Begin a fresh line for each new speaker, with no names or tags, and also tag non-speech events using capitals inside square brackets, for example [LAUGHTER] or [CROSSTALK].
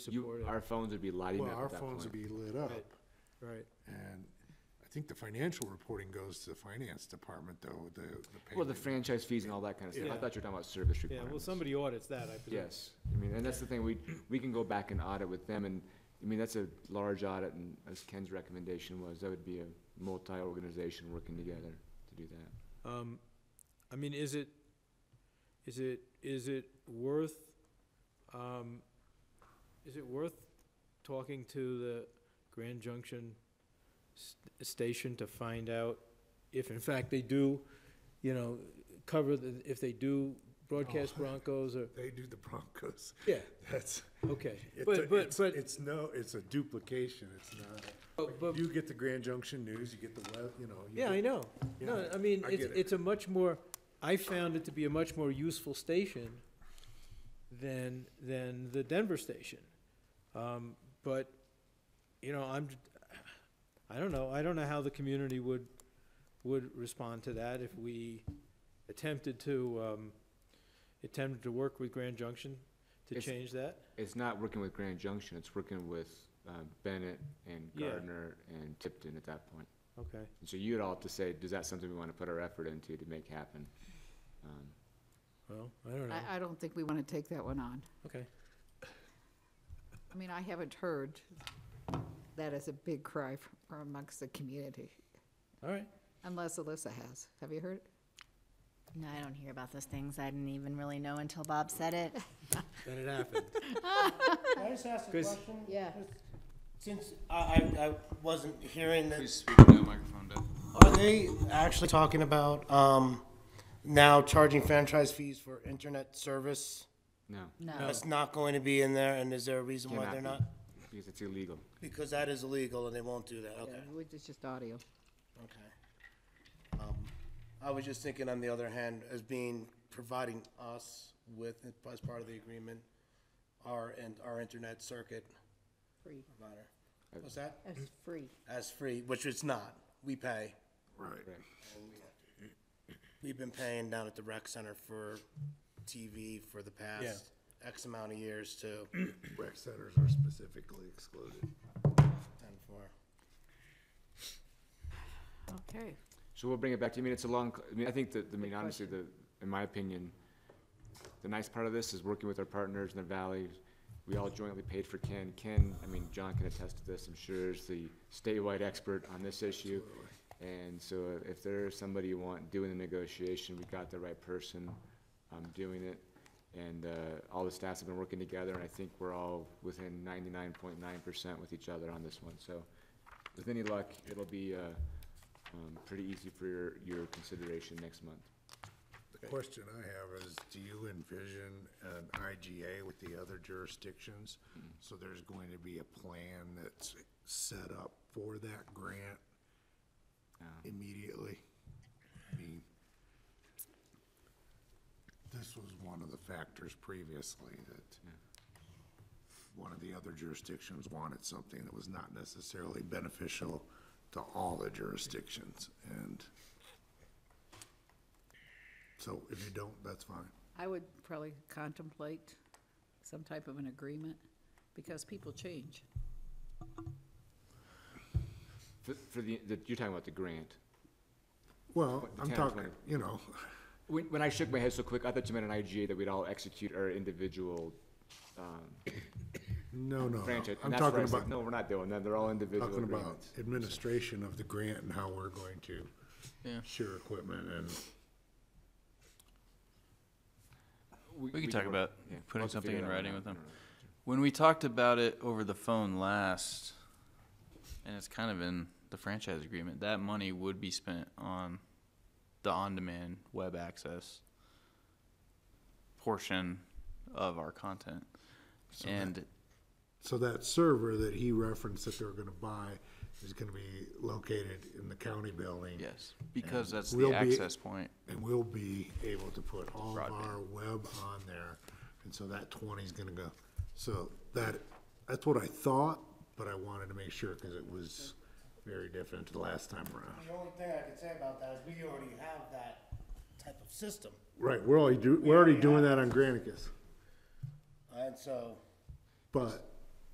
You,
support it.
our phones would be lighting
Well,
up
our
at that
phones would
point.
be lit up,
Right. Right.
and I think the financial reporting goes to the finance department, though, the, the payment.
Well, the franchise fees and all that kind of stuff. I
Yeah.
thought you were talking about service
Yeah, well,
requirements.
somebody audits that, I presume.
Yes, I mean, and that's the thing, we, we can go back and audit with them, and, I mean, that's a large audit, and as Ken's recommendation was, that would be a multi-organization working together to do that.
Um, I mean, is it, is it, is it worth, um, is it worth talking to the Grand Junction s- Station to find out if in fact they do, you know, cover the, if they do broadcast
Oh.
Broncos or,
They do the Broncos, [LAUGHS]
yeah,
that's,
okay.
it's, a-
But, but,
it's,
but,
it's no, it's a duplication, it's not.
but- but,
You get the Grand Junction News, you get the, web, you know. you
yeah, I
get-
know. No,
yeah,
I mean,
I
it's,
get it.
it's a much more, I found it to be a much more useful station than, than the Denver station. Um, but, you know, I'm, I don't know, I don't know how the community would, would respond to that if we attempted to, um, attempted to work with Grand Junction to
It's-
change that.
It's not working with Grand Junction, it's working with uh, Bennett and
Yeah.
Gardner and Tipton at that point.
Okay.
And so you'd all have to say, is that something we want to put our effort into to make happen? Um,
Well, I don't know,
I, I don't think we want to take that one on.
okay.
I mean, I haven't heard that as a big cry f- from amongst the community,
All right,
unless Alyssa has. Have you heard?
No, I don't hear about those things. I didn't even really know until Bob said it.
then it happened.
Can I just ask a
'Cause-
question?
Yeah.
Just- Since I, I, I wasn't hearing
Please
this,
speak into that microphone, Deb.
are they actually talking about, um, now charging franchise fees for internet service?
No,
No.
That's not going to be in there, and is there a reason why
Cannot
they're
be.
not?
because it's illegal.
Because that is illegal and they won't do that, okay,
Yeah, It's just audio.
okay. Um, I was just thinking on the other hand, as being, providing us with, as part of the agreement, our, and our internet circuit
Free.
provider. What's that?
That's free.
as free, which it's not. We pay.
Right.
We've been paying down at the rec center for TV for the past X amount of years too. And
Rec centers are specifically excluded.
for,
Okay.
So we'll bring it back to you. I mean, it's a long, I mean, I think that, I mean, honestly, the, in my opinion, the nice part of this is working with our partners in the valley. We all jointly paid for Ken. Ken, I mean, John can attest to this, I'm sure, is the statewide expert on this issue. And so uh, if there's somebody you want doing the negotiation, we got the right person, um, doing it. And, uh, all the staffs have been working together, and I think we're all within ninety-nine point nine percent with each other on this one. So with any luck, it'll be, uh, um, pretty easy for your, your consideration next month.
The question I have is, do you envision an IGA with the other jurisdictions? So there's going to be a plan that's set up for that grant immediately? I mean, This was one of the factors previously that one of the other jurisdictions wanted something that was not necessarily beneficial to all the jurisdictions, and so if you don't, that's fine.
I would probably contemplate some type of an agreement, because people change.
For, for the, the, you're talking about the grant.
Well,
What, the
I'm
10 or
talking,
20?
you know,
When, when I shook my head so quick, I thought you meant an IGA that we'd all execute our individual
no, no, no.
franchise. And
I'm
that's where
talking
I said,
about,
no, we're not doing that, they're all individual
talking about
agreements.
administration of the grant and how we're going to
Yeah.
share equipment and,
We can talk
work-
about
yeah, we'll
putting
have to
something
figure
in
that one
writing
out.
with them.
No, no, no.
When we talked about it over the phone last, and it's kind of in the franchise agreement, that money would be spent on the on-demand web access portion of our content. And
so that server that he referenced that they're gonna buy is gonna be located in the county building.
yes, because that's
We'll
the
be-
access point.
And we'll be able to put all of
Broadband.
our web on there, and so that twenty's gonna go. So that, that's what I thought, but I wanted to make sure, cause it was very different the last time around.
the only thing I can say about that is we already have that type of system.
Right, we're already do, we're already doing that on Granicus,
And so
but